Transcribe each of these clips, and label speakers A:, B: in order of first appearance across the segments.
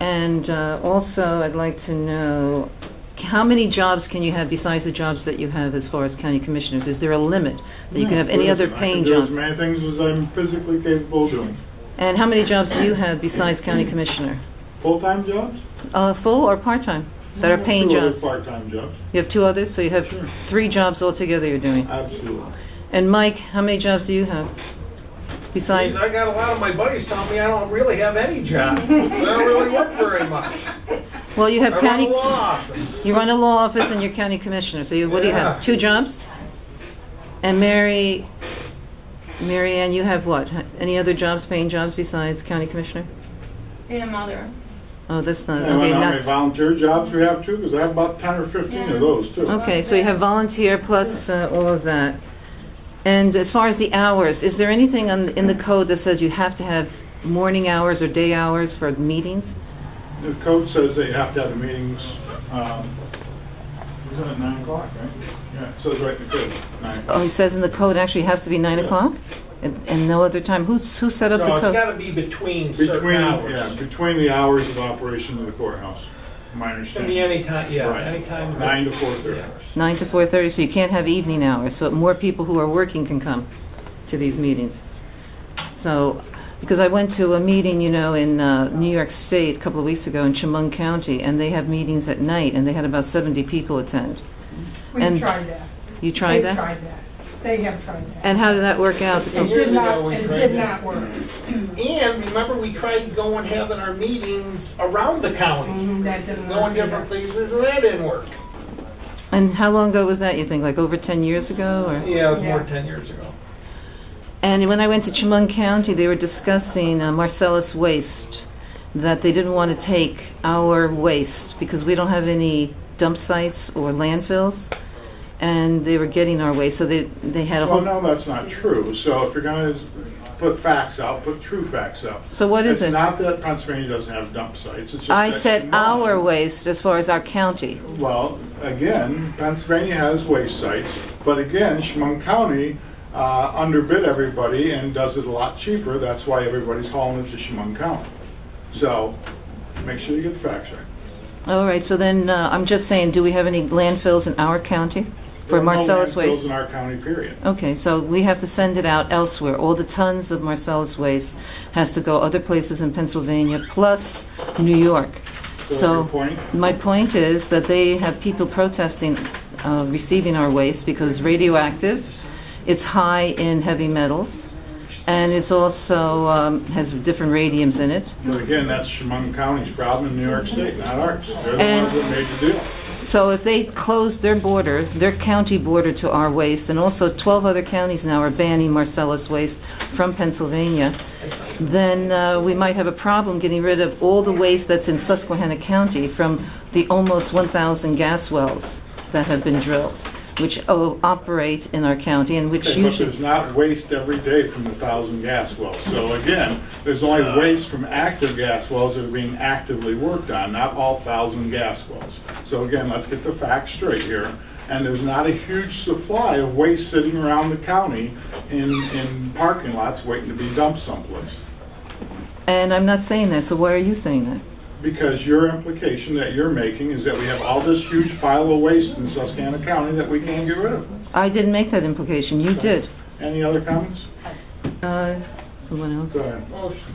A: And uh, also, I'd like to know, c- how many jobs can you have besides the jobs that you have as far as county commissioners? Is there a limit that you can have any other paying
B: I can
A: jobs?
B: do as many things as I'm physically capable of doing.
A: And how many jobs do you have besides county commissioner?
B: Full-time jobs?
A: Uh, Full or part-time that
B: I
A: are
B: have
A: paying
B: two other
A: jobs?
B: Part-time jobs,
A: You have two others, so you have
B: Sure.
A: three jobs altogether you're doing.
B: absolutely.
A: And Mike, how many jobs do you have besides?
C: I got a lot of my buddies telling me I don't really have any job. I don't really work very much.
A: Well, you
C: I
A: have
C: run
A: county,
C: a law office.
A: you run a law office and you're county commissioner, so you, what do you
C: Yeah.
A: have, two jobs? And Mary, Mary Ann, you have what, any other jobs, paying jobs besides county commissioner?
D: Being a mother.
A: Oh, that's not,
B: And
A: okay,
B: when how many
A: nuts.
B: volunteer jobs we have too, because I have about ten or fifteen of those too.
A: Okay, so you have volunteer plus uh, all of that. And as far as the hours, is there anything on, in the code that says you have to have morning hours or day hours for meetings?
B: The code says that you have to have the meetings, um, isn't it nine o'clock, right? Yeah, it says right in the code, nine
A: Oh,
B: o'clock.
A: it says in the code actually has to be nine
B: Yeah.
A: o'clock? And, and no other time? Who's, who set up
C: No,
A: the
C: it's
A: code?
C: gotta be between certain
B: Between, yeah,
C: hours.
B: between the hours of operation of the courthouse, my
C: It can be
B: understanding.
C: any time, yeah,
B: Right.
C: any time.
B: Nine to four thirty.
C: Yeah.
A: Nine to 4:30, so you can't have evening hours, so more people who are working can come to these meetings. So, because I went to a meeting, you know, in uh, New York State a couple of weeks ago in Chemung County, and they have meetings at night, and they had about 70 people attend. And-
E: We've tried that.
A: You tried
E: They've
A: that?
E: tried that. They have tried that.
A: And how did that work out?
C: And
E: It
C: years
E: did
C: ago,
E: not,
C: we
E: it
C: tried
E: did
C: that.
E: not work.
C: And remember, we tried going, having our meetings around the county,
A: Mm-hmm.
E: Mhm, That didn't work.
C: going
E: either.
C: different places, and that didn't work.
A: And how long ago was that, you think, like over 10 years ago, or?
C: Yeah, it was more
E: Yeah.
C: than ten years ago.
A: And when I went to Chemung County, they were discussing uh, Marcellus waste, that they didn't want to take our waste because we don't have any dump sites or landfills, and they were getting our waste, so they, they had a
B: Well,
A: whole,
B: no, that's not true. So if you're gonna put facts out, put true facts out.
A: so what is it?
B: It's not that Pennsylvania doesn't have dump sites, it's just.
A: I
B: that
A: said
B: Chemung-
A: our waste as far as our county.
B: Well, again, Pennsylvania has waste sites, but again, Chemung County uh, underbid everybody and does it a lot cheaper. That's why everybody's hauling it to Chemung County. So make sure you get the facts right.
A: All right, so then, uh, I'm just saying, do we have any landfills in our county
B: There
A: for
B: are no
A: Marcellus
B: landfills
A: waste?
B: in our county, period.
A: Okay, so we have to send it out elsewhere. All the tons of Marcellus waste has to go other places in Pennsylvania, plus New York.
B: So
A: So
B: your point?
A: my point is that they have people protesting uh, receiving our waste because it's radioactive, it's high in heavy metals, and it's also um, has different radiums in it.
B: But again, that's Chemung County's problem in New York State, not ours. They're the
A: And-
B: ones that made the deal.
A: So if they close their border, their county border to our waste, and also 12 other counties now are banning Marcellus waste from Pennsylvania, then uh, we might have a problem getting rid of all the waste that's in Susquehanna County from the almost 1,000 gas wells that have been drilled, which o- operate in our county and which
B: Okay, But
A: usually...
B: there's not waste every day from the thousand gas wells. So again, there's only waste from active gas wells that are being actively worked on, not all thousand gas wells. So again, let's get the facts straight here. And there's not a huge supply of waste sitting around the county in, in parking lots waiting to be dumped someplace.
A: And I'm not saying that, so why are you saying that?
B: Because your implication that you're making is that we have all this huge pile of waste in Susquehanna County that we can't get rid of.
A: I didn't make that implication, you did.
B: Any other comments?
A: Uh, Someone else?
B: Go ahead.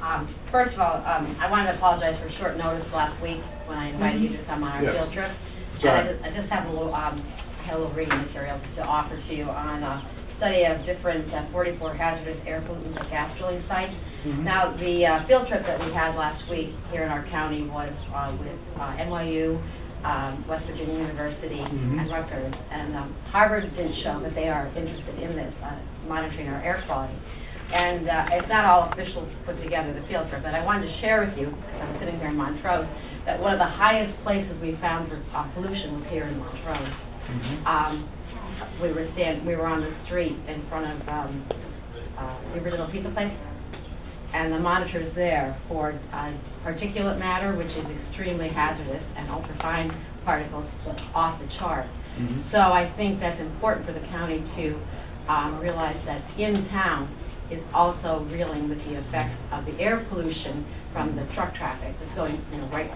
F: Um, First of all, um, I wanted to apologize for short notice last week when I invited you to come on our
B: Yes.
F: field trip.
B: It's
F: And
B: all
F: I
B: right.
F: ju- I just have a little, um, I had a little reading material to offer to you on a study of different uh, 44 hazardous air pollutants at gas drilling sites. Now, the uh, field trip that we had last week here in our county was uh, with uh, NYU, um, West Virginia University, and Rutgers. And um, Harvard did show that they are interested in this, uh, monitoring our air quality. And uh, it's not all official put together, the field trip, but I wanted to share with you, because I'm sitting here in Montrose, that one of the highest places we found for uh, pollution was here in Montrose. Um, We were stand, we were on the street in front of um, uh, the original pizza place, and the monitor's there for uh, particulate matter, which is extremely hazardous, and ultrafine particles but off the chart. So I think that's important for the county to um, realize that in town is also reeling with the effects of the air pollution from the truck traffic that's going, you know, right